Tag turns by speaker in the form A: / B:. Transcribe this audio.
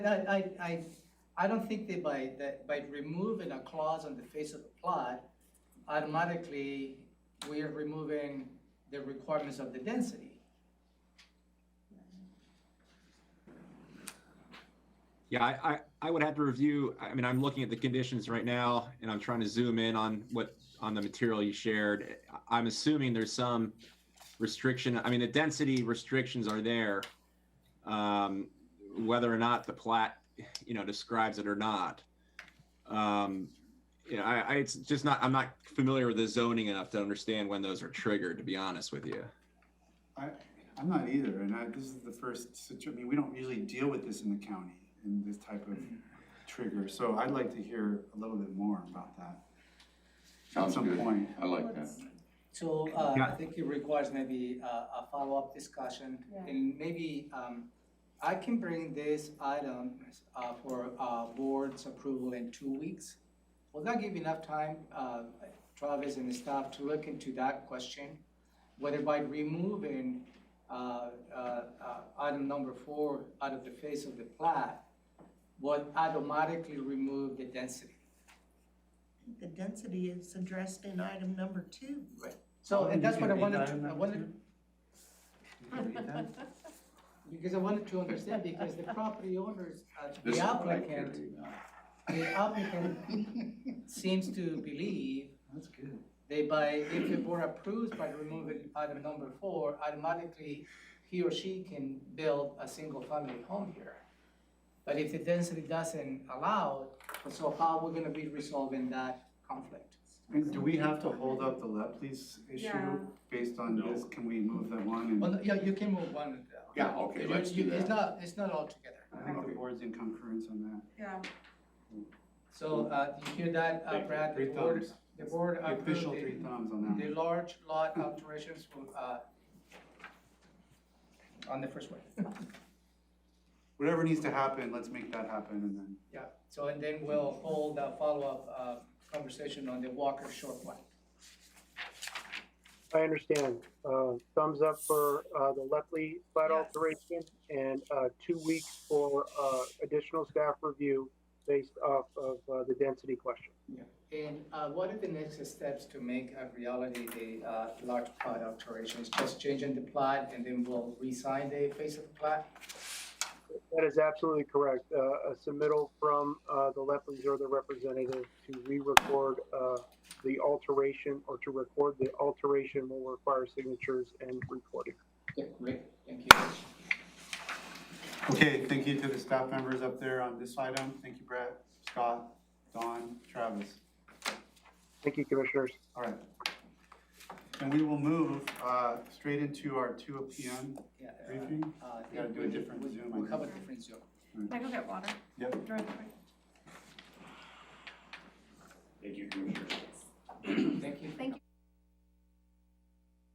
A: I, I, I, I don't think that by, that by removing a clause on the face of the plot, automatically, we are removing the requirements of the density.
B: Yeah, I, I, I would have to review, I mean, I'm looking at the conditions right now and I'm trying to zoom in on what, on the material you shared. I- I'm assuming there's some restriction, I mean, the density restrictions are there. Um, whether or not the plat, you know, describes it or not. Um, you know, I, I, it's just not, I'm not familiar with the zoning enough to understand when those are triggered, to be honest with you.
C: I, I'm not either, and I, this is the first situ, I mean, we don't usually deal with this in the county, in this type of
A: Mm-hmm.
C: trigger, so I'd like to hear a little bit more about that. At
D: Sounds
C: some
D: good.
C: point,
D: I like that.
A: So, uh, I
B: Yeah.
A: think it requires maybe a, a follow-up discussion,
E: Yeah.
A: and maybe, um, I can bring this item, uh, for, uh, board's approval in two weeks. Will that give enough time, uh, Travis and the staff to look into that question? Whether by removing, uh, uh, uh, item number four out of the face of the plat, would automatically remove the density?
F: The density is addressed in item number two.
A: So, and that's what I
G: You can read
A: wanted,
G: item
A: to- I
G: number
A: wanted,
G: two. You can read that?
A: Because I wanted to understand, because the property owners, uh,
D: This
A: the
D: is what I
A: applicant,
D: carry now.
A: the applicant seems to believe
G: That's good.
A: they by, if the board approves by removing item number four, automatically he or she can build a single-family home here. But if the density doesn't allow, so how we're gonna be resolving that conflict?
C: and do we have to hold up the Lepleys
E: Yeah.
C: issue based on this, can we move that one and?
A: Well, yeah, you can move one.
D: Yeah, okay, let's
A: You-
D: do
A: you- It's
D: that.
A: not, it's not all together.
C: I think the
D: Okay.
C: board's in concurrence on that.
A: Uh,
E: Yeah,
A: So, uh, you hear that, uh,
C: Thank you.
A: Brad, the
C: Three
A: board,
C: thumbs.
A: the board
C: The
A: approved
C: Official
A: it. Mm-hmm.
C: three thumbs on
A: The
C: that.
A: large lot alterations will, uh, on the first one.
C: Whatever needs to happen, let's make that happen and then.
A: Yeah, so and then we'll hold a follow-up, uh, conversation on the Walker Short one.
H: I understand. Uh, Thumbs up for uh, the Lepley plat
E: Yes.
H: alteration and uh, two weeks for uh, additional staff review based off of uh, the density question.
A: And, uh, what are the next steps to make a reality the, uh, large plot alterations? Just changing the plot and then we'll re-sign the face of the plot?
H: That is absolutely correct. Uh, A submittal from uh, the Lepleys or the representative to re-record uh, the alteration or to record the alteration will require signatures and recording.
A: Yeah, great, thank you.
C: Okay, thank you to the staff members up there on this item. Thank you, Brett, Scott, Don, Travis.
H: Thank you, Commissioners.
C: All right. And we will move uh, straight into our two PM
A: Yeah, uh,
C: briefing.
A: uh, I
C: We gotta
A: think
C: do a
A: we-
C: different
A: we-
C: Zoom, I
A: We'll have a
C: think.
A: different Zoom.
E: I go get water.
C: Yep.
E: Drive away.
D: Thank you, Commissioner.
A: Thank you.
E: Thank you.